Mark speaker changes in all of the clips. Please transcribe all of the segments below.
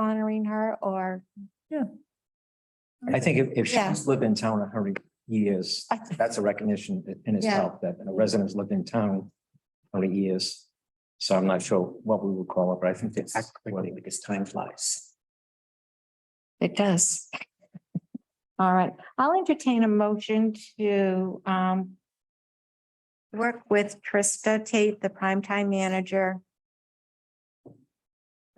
Speaker 1: honoring her or,
Speaker 2: I think if, if
Speaker 1: Yeah.
Speaker 2: she's lived in town a hundred years,
Speaker 1: I th-
Speaker 2: that's a recognition in itself that a resident's lived in town a hundred years. So I'm not sure what we would call it, but I think that's.
Speaker 3: quickly because time flies.
Speaker 1: it does. All right, I'll entertain a motion to um work with Trista Tate, the primetime manager.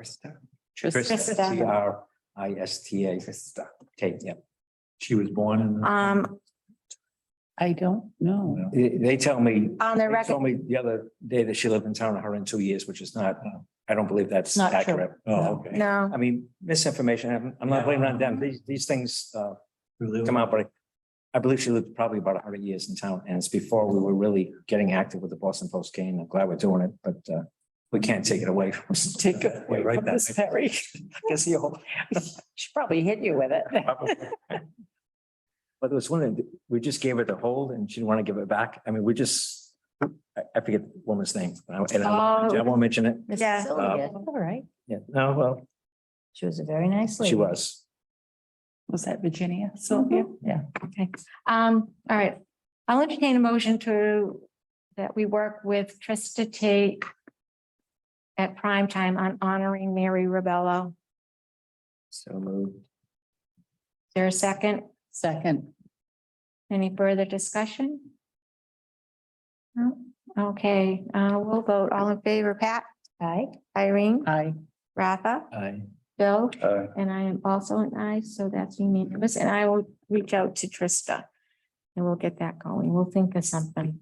Speaker 3: Krista.
Speaker 1: Krista.
Speaker 2: T R I S T A,
Speaker 3: Krista.
Speaker 2: Tate, yeah.
Speaker 4: She was born in.
Speaker 1: Um,
Speaker 5: I don't know.
Speaker 2: They, they tell me,
Speaker 1: on um, the
Speaker 2: they
Speaker 1: record,
Speaker 2: told me the other day that she lived in town a hundred and two years, which is not,
Speaker 3: Oh.
Speaker 2: I don't believe that's
Speaker 5: Not true.
Speaker 2: accurate.
Speaker 4: Oh, okay.
Speaker 1: no,
Speaker 2: I mean, misinformation, I'm- I'm not blaming on them. These, these things, uh,
Speaker 4: Really?
Speaker 2: come out, but I- I believe she lived probably about hundred years in town, and it's before we were really getting active with the Boston Post game. I'm glad we're doing it, but uh, we can't take it away from.
Speaker 5: Take it away
Speaker 2: Right
Speaker 5: from
Speaker 2: back.
Speaker 5: this Perry.
Speaker 2: Guess you'll-
Speaker 5: She probably hit you with it.
Speaker 2: But there was one, that we just gave her the hold and she didn't want to give it back. I mean, we just, I, I forget the woman's name. and I- and
Speaker 5: Oh.
Speaker 2: I I won't mention it.
Speaker 5: Miss
Speaker 1: Yeah.
Speaker 5: Sylvia, All right.
Speaker 2: Yeah, no, well,
Speaker 5: She was a very nice lady.
Speaker 2: Uh, she was.
Speaker 5: Was that Virginia Sylvia? Yeah.
Speaker 1: Oh, okay. Um, all right, I'll entertain a motion to that we work with Trista Tate at primetime on honoring Mary Ribello. Is
Speaker 2: So moved.
Speaker 1: there a second?
Speaker 5: Second.
Speaker 1: Any further discussion? No? Okay, uh, we'll vote. All in favor, Pat,
Speaker 5: Aye.
Speaker 1: Irene,
Speaker 5: Aye.
Speaker 1: Rafa,
Speaker 2: I,
Speaker 1: Bill,
Speaker 4: Uh,
Speaker 1: and I am also an aye, so that's unanimous. And I will reach out to Trista. And we'll get that going. We'll think of something.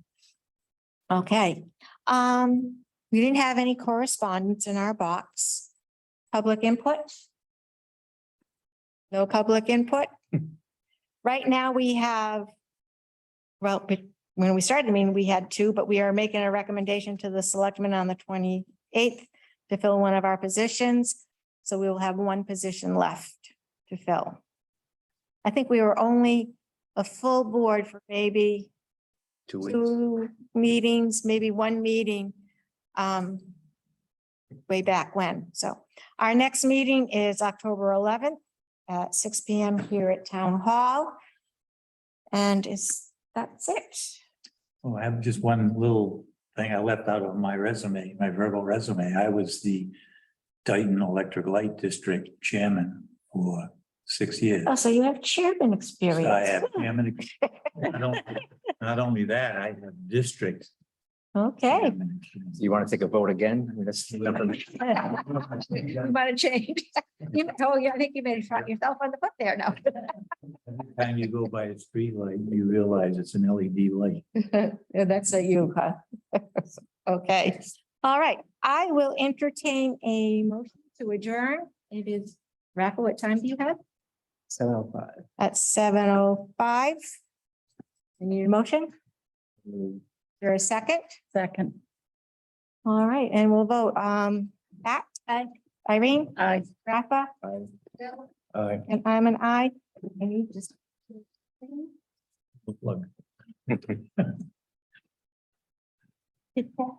Speaker 1: Okay, um, we didn't have any correspondence in our box. Public input? No public input? Right now, we have, well, but when we started, I mean, we had two, but we are making a recommendation to the selectmen on the twenty-eighth to fill one of our positions. So we will have one position left to fill. I think we were only a full board for maybe
Speaker 2: two weeks.
Speaker 1: two meetings, maybe one meeting um, way back when. So our next meeting is October eleventh at six P M here at Town Hall. And is, that's it.
Speaker 4: Oh, I have just one little thing I left out of my resume, my verbal resume. I was the Dayton Electric Light District Chairman for six years.
Speaker 1: Oh, so you have chairman
Speaker 4: So I have
Speaker 1: experience.
Speaker 4: chairman. ex- I don't- Not only that, I have district.
Speaker 1: Okay.
Speaker 4: chairman experience.
Speaker 2: You want to take a vote again? I mean, that's.
Speaker 1: You want to change? You, oh, yeah, I think you made a shot yourself on the foot there now.
Speaker 4: Every Time you go by a street light, you realize it's an LED light.
Speaker 1: Yeah, That's a you, huh? Okay, all right. I will entertain a motion to adjourn. It is, Rafa, what time do you have?
Speaker 2: oh
Speaker 3: So, uh,
Speaker 1: At seven oh five. You need a motion? Is there a second?
Speaker 5: Second.
Speaker 1: All right, and we'll vote. Um, Pat, aye. Irene,
Speaker 5: Aye.
Speaker 1: Rafa,
Speaker 2: Aye.
Speaker 4: I
Speaker 1: and I'm an I. And you just.
Speaker 4: look.
Speaker 1: Did Pat